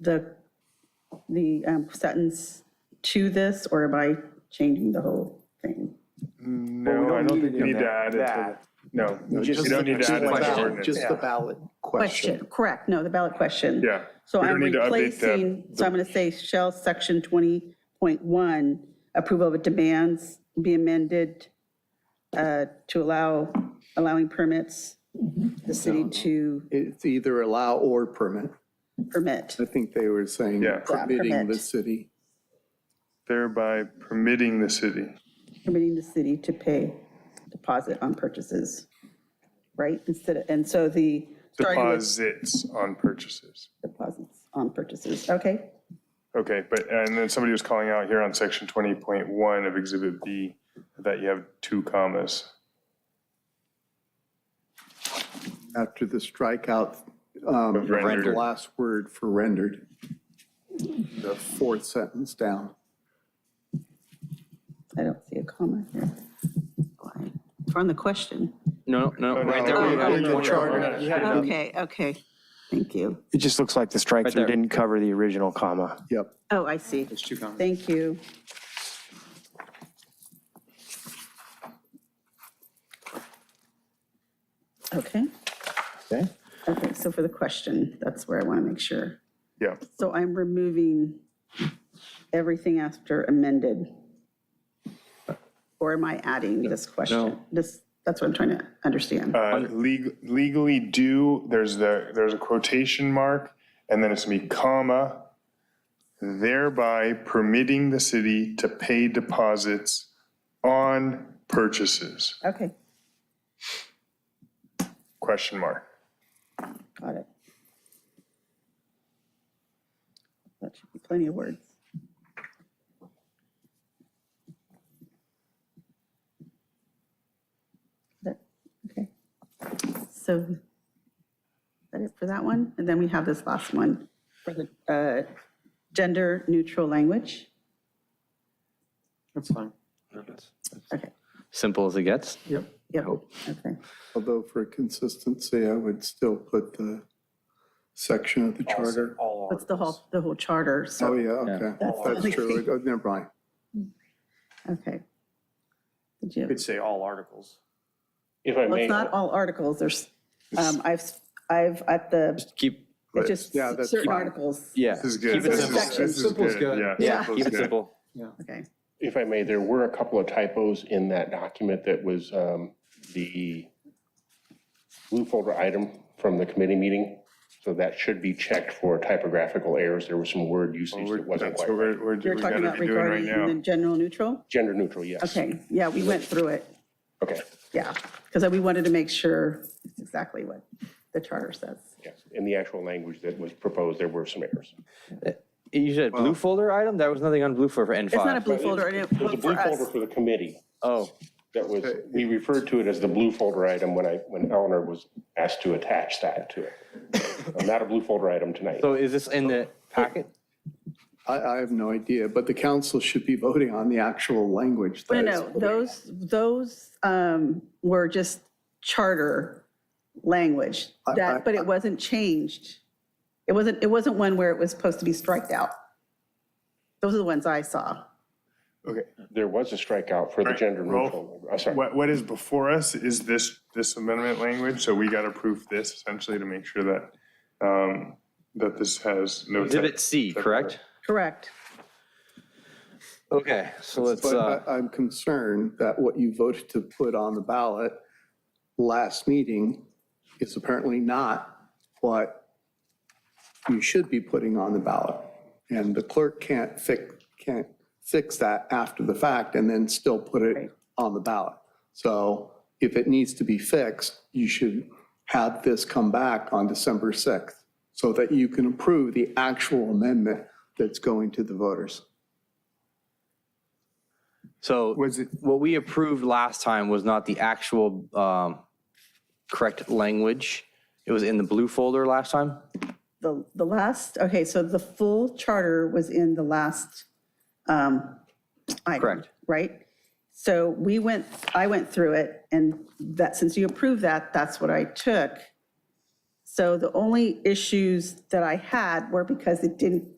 the, the um, sentence to this, or am I changing the whole thing? No, I don't think you need to add it to, no, you Just don't need the- to just add the it to the ballot- ordinance. Just the ballot Question, question. correct, no, the ballot question. Yeah. So We don't I'm need to update the- replacing, so I'm going to say, shall section 20.1 approval of demands be amended uh, to allow, allowing permits, the city to It's either allow or permit. permit, I think they were saying Yeah, Yeah. permitting the permit. city. Thereby permitting the city. permitting the city to pay deposit on purchases, right? Instead of, and so the, starting with Deposits on purchases. deposits on purchases, okay? Okay, but, and then somebody was calling out here on section 20.1 of Exhibit B that you have two commas. After the strikeout, um, Of rendered. the last word for rendered. The fourth sentence down. I don't see a comma here. Why? We're on the question. No, no, right there. no, where you no, got no, the no, point. no, no, no. Okay, okay, thank you. It just looks like the strike through there. didn't cover the original comma. Yep. Oh, I see. There's two commas. Thank you. Okay, Okay. okay, so for the question, that's where I want to make sure. Yeah, So I'm removing everything after amended. Or am I adding this question? This, that's what I'm trying to understand. Uh, leg- legally do, there's the, there's a quotation mark, and then it's gonna be comma, thereby permitting the city to pay deposits on purchases, Okay, question mark. got it. That should be plenty of words. That- Okay. So is that it for that one? And then we have this last one for the uh, gender neutral language. That's fine. Okay, Simple as it gets. Yep. yep, okay. Although for consistency, I would still put the section of the charter. That's the whole, the whole charter, so. Oh, yeah, okay. That's the only That's true. thing. Oh, Never mind. Okay. Did you, Could say all articles. If I well, may, it's not all articles, there's, um, I've, I've, at the, Keep, it's just yeah, that's certain fine. articles. yeah. This is good. Keep it This is- simple. Section. this Simple is good. Yeah. Yeah. simple is Keep it good. simple. Okay, if I may, there were a couple of typos in that document that was um, the blue folder item from the committee meeting. So that should be checked for typographical errors. There was some word usage that wasn't That's quite what right. we're, we're, we you're talking gotta about be doing right regarding and now. then general neutral? Gender neutral, yes. Okay, yeah, we went through it, Okay, yeah, because we wanted to make sure it's exactly what the charter says. yes. In the actual language that was proposed, there were some errors. You said blue folder item? There was nothing on blue folder for N5. It's not a blue folder, it There's a for blue folder us. for the committee Oh, that was, we referred to it as the blue folder item when I, when Eleanor was asked to attach that to it. Not a blue folder item tonight. so is this in the packet? I, I have no idea, but the council should be voting on the actual language. No, that is no, no, those, those um, were just charter language, I- I- that, but it wasn't changed. It wasn't, it wasn't one where it was supposed to be striked out. Those are the ones I saw. Okay. There was a strikeout for the Right, gender Rolf, neutral. I'm sorry. What, what is before us is this, this amendment language, so we gotta proof this essentially to make sure that, um, that this has no. Exhibit C, correct? Correct. Okay, so let's, uh, But I- I'm concerned that what you voted to put on the ballot last meeting is apparently not what you should be putting on the ballot. And the clerk can't fix, can't fix that after the fact and then still put Right. it on the ballot. So if it needs to be fixed, you should have this come back on December 6th so that you can approve the actual amendment that's going to the voters. so Was it, what we approved last time was not the actual um, correct language. It was in the blue folder last time? The, the last, okay, so the full charter was in the last um, item. Correct. Right? So we went, I went through it, and that, since you approved that, that's what I took. So the only issues that I had were because it didn't